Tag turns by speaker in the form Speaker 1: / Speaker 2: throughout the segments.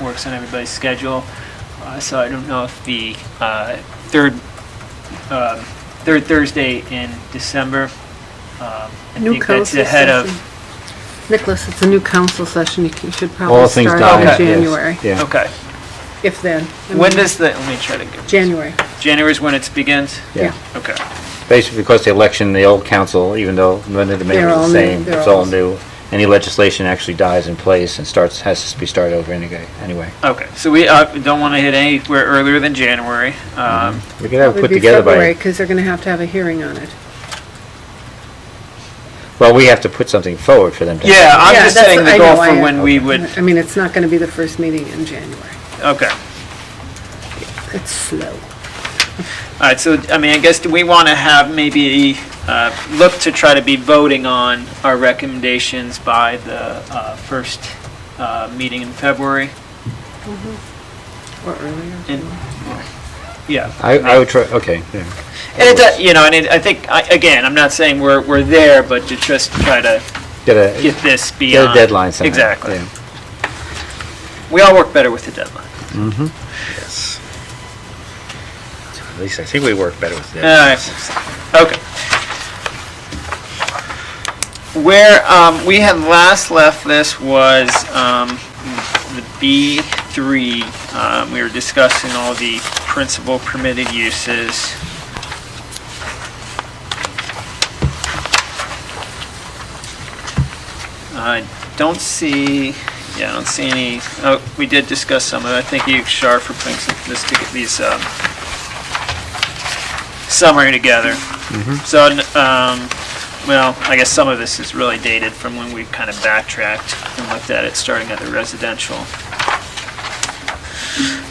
Speaker 1: works on everybody's schedule. Uh, So I don't know if the uh, third, um, third Thursday in December, um, I
Speaker 2: New
Speaker 1: think that's
Speaker 2: council
Speaker 1: ahead of,
Speaker 2: session. Nicholas, it's a new council session. You c- you should
Speaker 3: All
Speaker 2: probably
Speaker 3: things
Speaker 2: start
Speaker 3: done.
Speaker 2: in
Speaker 1: Okay.
Speaker 2: January,
Speaker 3: Yeah.
Speaker 1: okay.
Speaker 2: if then. I
Speaker 1: When
Speaker 2: mean,
Speaker 1: does the, let me try to get,
Speaker 2: January,
Speaker 1: January's when it begins?
Speaker 2: yeah.
Speaker 3: Yeah.
Speaker 1: Okay.
Speaker 3: Basically, because the election, the old council, even though none of the
Speaker 2: They're
Speaker 3: mayor
Speaker 2: all
Speaker 3: is
Speaker 2: new,
Speaker 3: the same,
Speaker 2: they're
Speaker 3: it's
Speaker 2: all-
Speaker 3: all new. Any legislation actually dies in place and starts, has to be started over anyway, anyway.
Speaker 1: Okay, so we uh, don't want to hit anywhere earlier than January. Um,
Speaker 3: We could have
Speaker 2: Would
Speaker 3: it put
Speaker 2: be
Speaker 3: together
Speaker 2: February,
Speaker 3: by,
Speaker 2: because they're going to have to have a hearing on it.
Speaker 3: well, we have to put something forward for them to.
Speaker 1: Yeah, I'm
Speaker 2: Yeah,
Speaker 1: just
Speaker 2: that's-
Speaker 1: setting the
Speaker 2: I
Speaker 1: goal
Speaker 2: know, I-
Speaker 1: for when we would,
Speaker 2: I mean, it's not going to be the first meeting in January.
Speaker 1: okay.
Speaker 2: It's slow.
Speaker 1: All right, so, I mean, I guess, do we want to have maybe, uh, look to try to be voting on our recommendations by the uh, first uh, meeting in February?
Speaker 2: Or earlier.
Speaker 1: And, yeah.
Speaker 3: I, I would try, okay, yeah.
Speaker 1: And it, does- you know, and it- I think, I- again, I'm not saying we're, we're there, but to just try to
Speaker 3: Get a,
Speaker 1: get this beyond.
Speaker 3: get a deadline somehow.
Speaker 1: Exactly.
Speaker 3: yeah.
Speaker 1: We all work better with the deadline.
Speaker 3: Yes. At least I think we work better with
Speaker 1: All right, okay. Where um, we had last left this was um, the B3. Um, We were discussing all the principal permitted uses. I don't see, yeah, I don't see any, oh, we did discuss some of it. I thank you, Shar, for putting some- this to get these um, summary together. So, n- um, well, I guess some of this is really dated from when we kind of backtracked and looked at it, starting at the residential.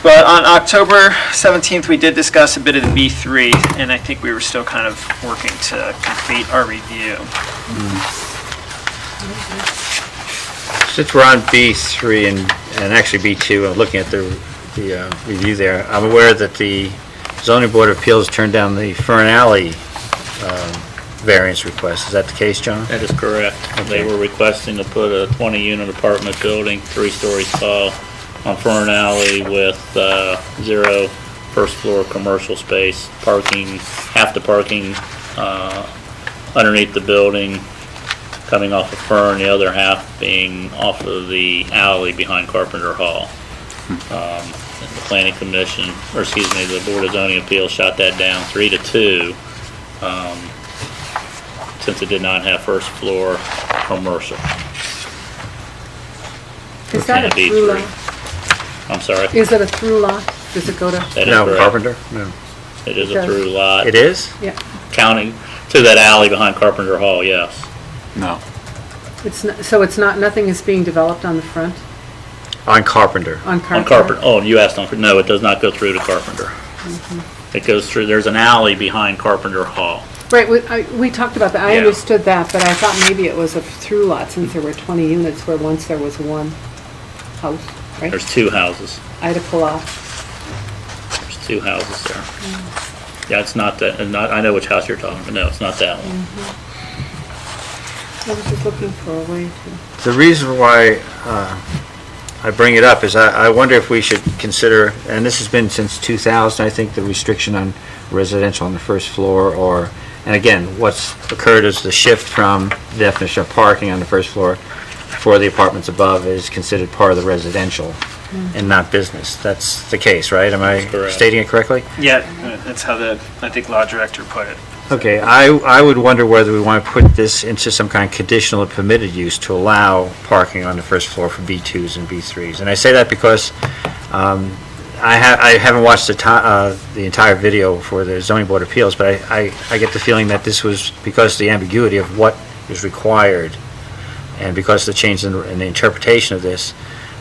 Speaker 1: But on October 17th, we did discuss a bit of the B3, and I think we were still kind of working to complete our review.
Speaker 3: Since we're on B3 and, and actually B2, I'm looking at the, the uh, review there, I'm aware that the zoning board of appeals turned down the Fern Alley um, variance request. Is that the case, John?
Speaker 4: That is correct.
Speaker 3: Okay.
Speaker 4: They were requesting to put a 20-unit apartment building, three stories tall, on Fern Alley with uh, zero first-floor commercial space, parking, half the parking uh, underneath the building coming off of Fern, the other half being off of the alley behind Carpenter Hall. Um, and The planning commission, or excuse me, the Board of Zoning Appeals shot that down three to two since it did not have first floor commercial.
Speaker 2: Is that a
Speaker 4: Kind of
Speaker 2: through
Speaker 4: B3.
Speaker 2: lot?
Speaker 4: I'm sorry.
Speaker 2: Is it a through lot? Does it go to,
Speaker 4: That is
Speaker 3: No,
Speaker 4: correct.
Speaker 3: Carpenter? No.
Speaker 4: It is a
Speaker 2: Does-
Speaker 4: through lot,
Speaker 3: It is?
Speaker 2: yeah,
Speaker 4: counting to that alley behind Carpenter Hall, yes.
Speaker 3: No.
Speaker 2: it's, not. so it's not, nothing is being developed on the front,
Speaker 3: On Carpenter.
Speaker 2: on
Speaker 4: On
Speaker 2: Carpenter?
Speaker 4: Carpenter, oh, you asked on, no, it does not go through to Carpenter. It goes through, there's an alley behind Carpenter Hall.
Speaker 2: Right, we, I, we talked about that, I
Speaker 4: Yeah.
Speaker 2: understood that, but I thought maybe it was a through lot, since there were twenty units where once there was one house, right?
Speaker 4: There's two houses,
Speaker 2: Ida Palaf,
Speaker 4: there's two houses there. Yeah, it's not that, and not, I know which house you're talking about, no, it's not that one.
Speaker 2: I was just looking for a way to,
Speaker 3: The reason why uh, I bring it up is I I wonder if we should consider, and this has been since 2000, I think, the restriction on residential on the first floor, or, and again, what's occurred is the shift from the definition of parking on the first floor for the apartments above is considered part of the residential and not business. That's the case, right? Am
Speaker 4: Hmm. That's
Speaker 3: I
Speaker 4: correct.
Speaker 3: stating it correctly?
Speaker 1: Yeah, that's how the, I think, law director put it.
Speaker 3: Okay, I, I would wonder whether we want to put this into some kind of conditional or permitted use to allow parking on the first floor for B2s and B3s. And I say that because um, I ha, I haven't watched the ti, uh, the entire video for the zoning board of appeals, but I, I, I get the feeling that this was because of the ambiguity of what is required, and because of the change in, in the interpretation of this,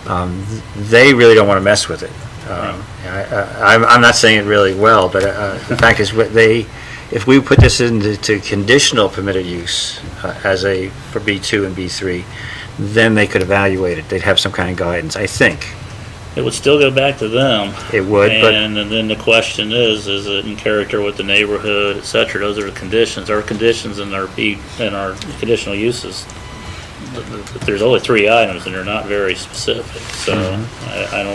Speaker 3: um, th- they really don't want to mess with it. Um, I, I, I'm- I'm not saying it really well, but uh, the fact is, what they, if we put this into to conditional permitted use uh, as a, for B2 and B3, then they could evaluate it, they'd have some kind of guidance, I think.
Speaker 4: It would still go back to them.
Speaker 3: It would, but...
Speaker 4: And and then the question is, is it in character with the neighborhood, et cetera? Those are the conditions. Our conditions and our, B- and our conditional uses,
Speaker 3: Mm-hmm.
Speaker 4: th- th- there's only three items and they're not very specific. So I, I don't